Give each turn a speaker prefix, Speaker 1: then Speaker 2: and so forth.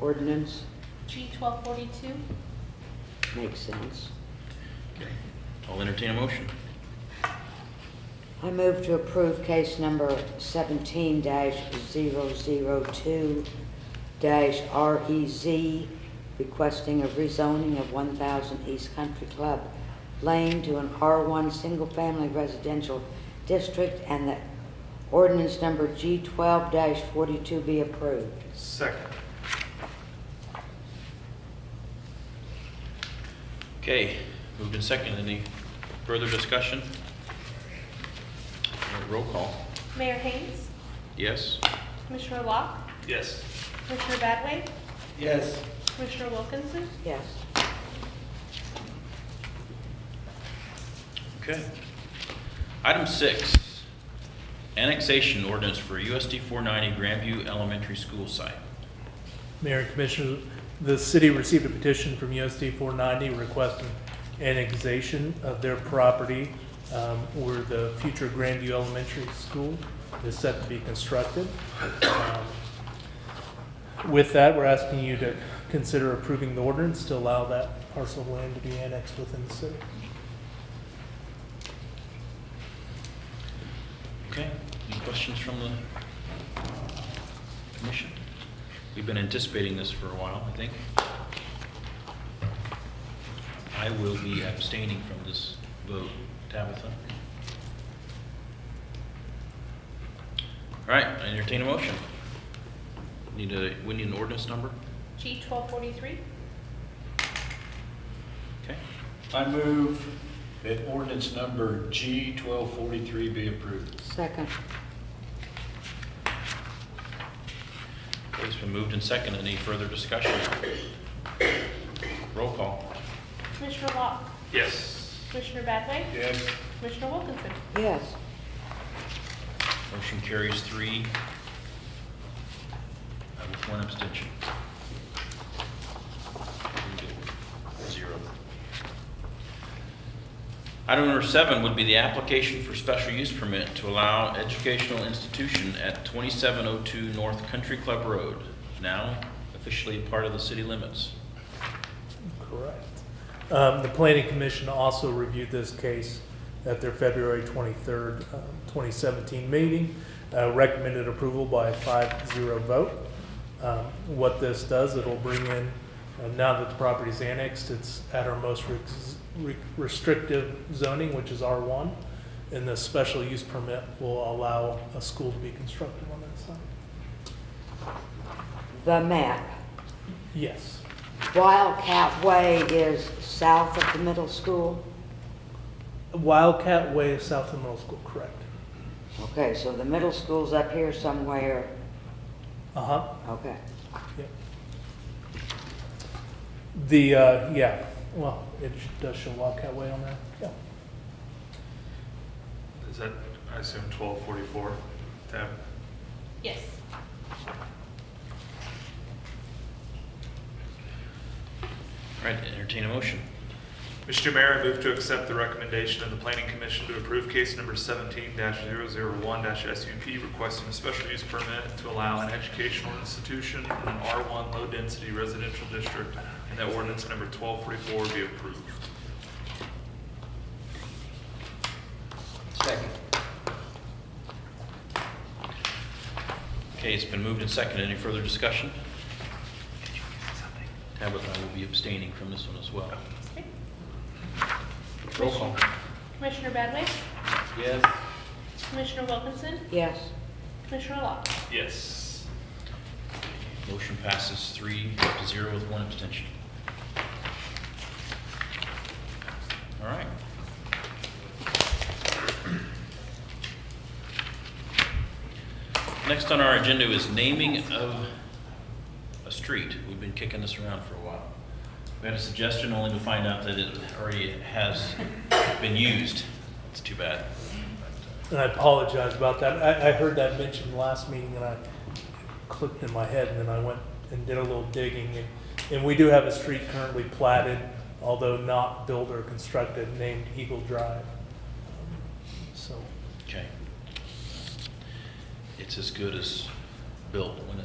Speaker 1: ordinance?
Speaker 2: G twelve forty-two?
Speaker 1: Makes sense.
Speaker 3: Okay. I'll entertain a motion.
Speaker 1: I move to approve case number seventeen dash zero zero two dash REZ, requesting a rezoning of one thousand East Country Club Lane to an R one single-family residential district and that ordinance number G twelve dash forty-two be approved.
Speaker 4: Second.
Speaker 3: Okay, moved and second. Any further discussion? Uh, Roll call.
Speaker 2: Mayor Haynes?
Speaker 3: Yes?
Speaker 2: Commissioner Locke?
Speaker 4: Yes.
Speaker 2: Commissioner Badway?
Speaker 4: Yes.
Speaker 2: Commissioner Wilkinson?
Speaker 1: Yes.
Speaker 3: Okay. Item six, annexation ordinance for USD 490 Grandview Elementary School site.
Speaker 5: Mayor and Commissioners, the city received a petition from USD 490 requesting annexation of their property um, where the future Grandview Elementary School is set to be constructed. Um, With that, we're asking you to consider approving the ordinance to allow that parcel of land to be annexed within the city.
Speaker 3: Okay, any questions from the commission? We've been anticipating this for a while, I think. I will be abstaining from this vote, Tabitha. All right, I entertain a motion. Need a, we need an ordinance number?
Speaker 2: G twelve forty-three?
Speaker 3: Okay,
Speaker 6: I move that ordinance number G twelve forty-three be approved.
Speaker 1: Second.
Speaker 3: Okay, it's been moved and second. Any further discussion? Roll call.
Speaker 2: Commissioner Locke?
Speaker 4: Yes.
Speaker 2: Commissioner Badway?
Speaker 6: Yes.
Speaker 2: Commissioner Wilkinson?
Speaker 1: Yes.
Speaker 3: Motion carries three uh, with one abstention. Zero. Item number seven would be the application for special use permit to allow educational institution at 2702 North Country Club Road, now officially part of the city limits.
Speaker 5: Correct. Um, The Planning Commission also reviewed this case at their February 23rd, um, 2017 meeting, uh, recommended approval by a 5-0 vote. Um, What this does, it'll bring in, uh, now that the property's annexed, it's at our most rex- re- restrictive zoning, which is R1, and the special use permit will allow a school to be constructed on that site.
Speaker 1: The map.
Speaker 5: Yes,
Speaker 1: Wildcat Way is south of the middle school?
Speaker 5: Wildcat Way is south of middle school, correct?
Speaker 1: Okay, so the middle school's up here somewhere,
Speaker 5: Uh-huh.
Speaker 1: okay.
Speaker 5: Yep. The, uh, yeah, well, it sh- does show Wildcat Way on there, yeah.
Speaker 4: Is that, I assume, twelve forty-four, Tab?
Speaker 2: Yes.
Speaker 3: All right, entertain a motion.
Speaker 4: Mr. Mayor, I move to accept the recommendation of the Planning Commission to approve case number seventeen one SUP requesting a special use permit to allow an educational institution in an R one low-density residential district, and that ordinance number twelve forty-four be approved.
Speaker 3: Okay, it's been moved and seconded. Any further discussion? Tabitha will be abstaining from this one as well.
Speaker 2: Okay.
Speaker 3: Roll call.
Speaker 2: Commissioner Badway?
Speaker 3: Yes.
Speaker 2: Commissioner Wilkinson?
Speaker 1: Yes,
Speaker 2: Commissioner Locke?
Speaker 4: Yes.
Speaker 3: Motion passes three to zero with one abstention. All right. Next on our agenda is naming of a street. We've been kicking this around for a while. We had a suggestion only to find out that it already has been used. It's too bad.
Speaker 5: And I apologize about that. I, I heard that mentioned last meeting and I clicked in my head and then I went and did a little digging. And- And we do have a street currently platted, although not built or constructed, named Eagle Drive. So,
Speaker 3: Okay. It's as good as built when it